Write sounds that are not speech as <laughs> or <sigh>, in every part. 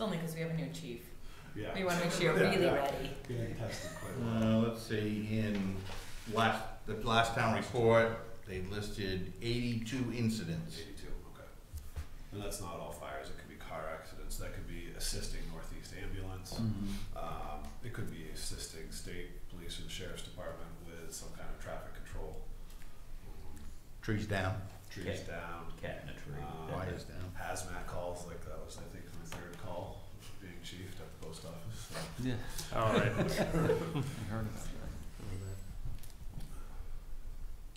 only because we have a new chief. Yeah. We want to make sure you're Yeah, really yeah. ready. Getting tested quite a lot. Uh, let's see, in last, the last town report, they listed eighty-two incidents. Eighty-two, okay. And that's not all fires, it could be car accidents, that could be assisting Northeast Ambulance. Um, it could be assisting state police and sheriff's department with some kind of traffic control. Um, Trees down, Trees Okay. down, Cat in a tree. Uh, That- wires down. hazmat calls, like that was, I think, my third call, being chief at the post office, so. Yeah. All right.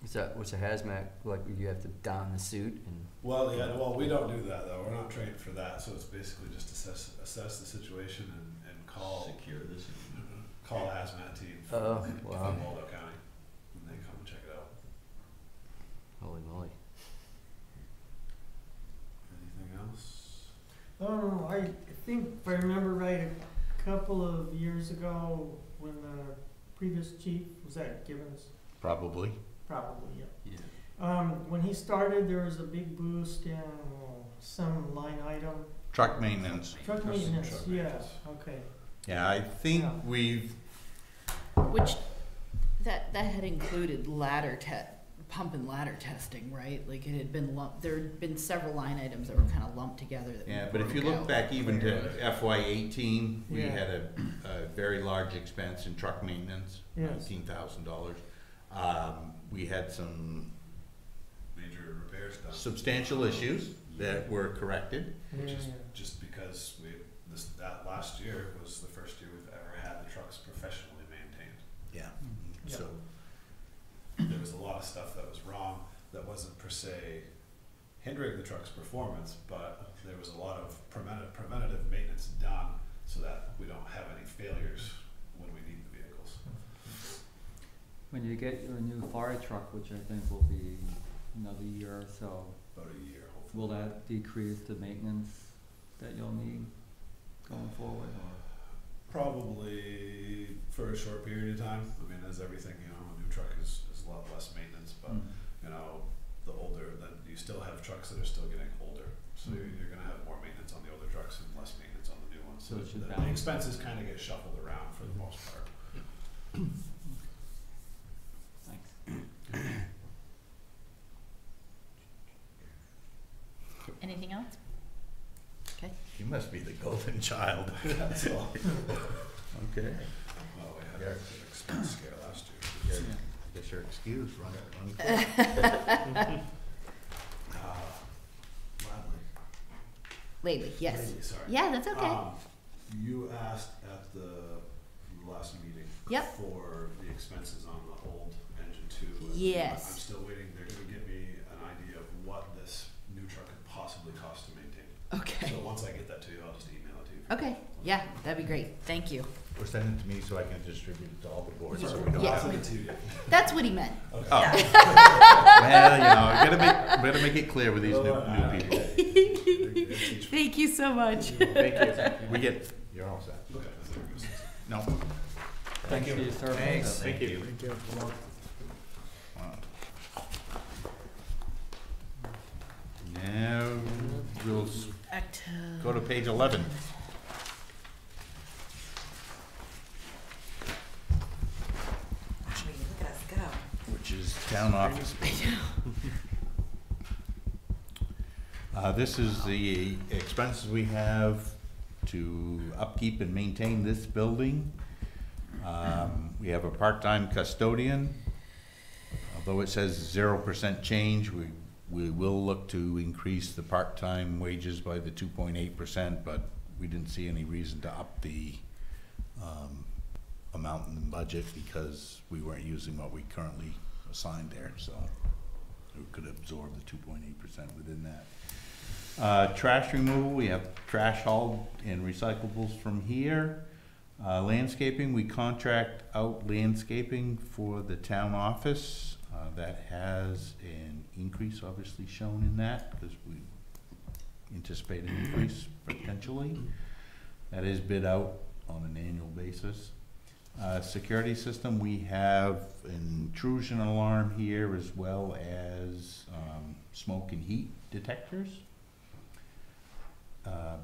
Is that what's a hazmat like? You have to don the suit and Well, yeah, well, we don't do that though. We're not trained for that, so it's basically just assess assess the situation and, and call Secure this. call hazmat team from, Oh, from wow. Waldo County, and they come and check it out. holy moly. Anything else? Oh, I think if I remember right, a couple of years ago, when uh, the previous chief, was that Givens? Probably. Probably, yeah. Yeah. Um, when he started, there was a big boost in some line item, Truck maintenance. truck Truck maintenance, yeah, maintenance. okay. Yeah, I think Yeah. we've, Which, that, that had included ladder te- pump and ladder testing, right? Like it had been lumped, there'd been several line items that were kind of lumped together that we yeah, but if you broke look out. back even to FY eighteen, we Yeah. had a, a very large expense in truck maintenance, Yes. nineteen thousand dollars. Um, we had some Major repairs done, substantial issues that were corrected. which is Yeah. just because we this that last year was the first year we've ever had the trucks professionally maintained. Yeah. Hmm. Yeah. So, there was a lot of stuff that was wrong that wasn't per se hindering the truck's performance, but there was a lot of preventative, preventative maintenance done so that we don't have any failures when we need the vehicles. When you get your new fire truck, which I think will be another year or so, About a year, hopefully. will that decrease the maintenance that you'll need going forward or? Probably for a short period of time. I mean, as everything, you know, a new truck is, is a lot less maintenance, but Hmm. you know, the older, then you still have trucks that are still getting older. So you're, you're gonna have more maintenance on the older trucks and less maintenance on the new ones. So it should the, the balance. expenses kinda get shuffled around for the most part. Thanks. Anything else? you must be the golden <laughs> child. That's all. Okay. Well, we Yeah. had an expense scare last year. Yeah, I guess you're excused, run, run quick. Gladly. Lately, yes. Lately, Sorry. Yeah, that's Ah. okay. Um, You asked at the last meeting. Yep. For the expenses on the old engine two. and Yes. I'm still waiting, they're gonna give me an idea of what this new truck could possibly cost to maintain. Okay, So once I get that to you, I'll just email it to you. okay, yeah, that'd be great, thank you. Or send it to me so I can distribute it to all the boards, so we don't. Yeah. I'll send it to you. That's what he meant. Oh. Well, you know, you gotta make, better make it clear with these new, new <laughs> people. <laughs> people. Thank you so much. uh, Thank you. We get, you're all set. Okay, that's there it goes. No. Thanks for your service. Thanks, thank you. Now, we'll s- Back to- go to page eleven. Wow, look at us go. which is town office. Uh, this is the expenses we have to upkeep and maintain this building. Um, we have a part-time custodian. Although it says zero percent change, we, we will look to increase the part-time wages by the two point eight percent, but we didn't see any reason to up the, um, amount in the budget because we weren't using what we currently assigned there, so we could absorb the two point eight percent within that. Uh, trash removal, we have trash hauled and recyclables from here. Uh, landscaping, we contract out landscaping for the town office. Uh, that has an increase obviously shown in that because we anticipate an increase potentially. That is bid out on an annual basis. Uh, security system, we have intrusion alarm here as well as, um, smoke and heat detectors. Uh,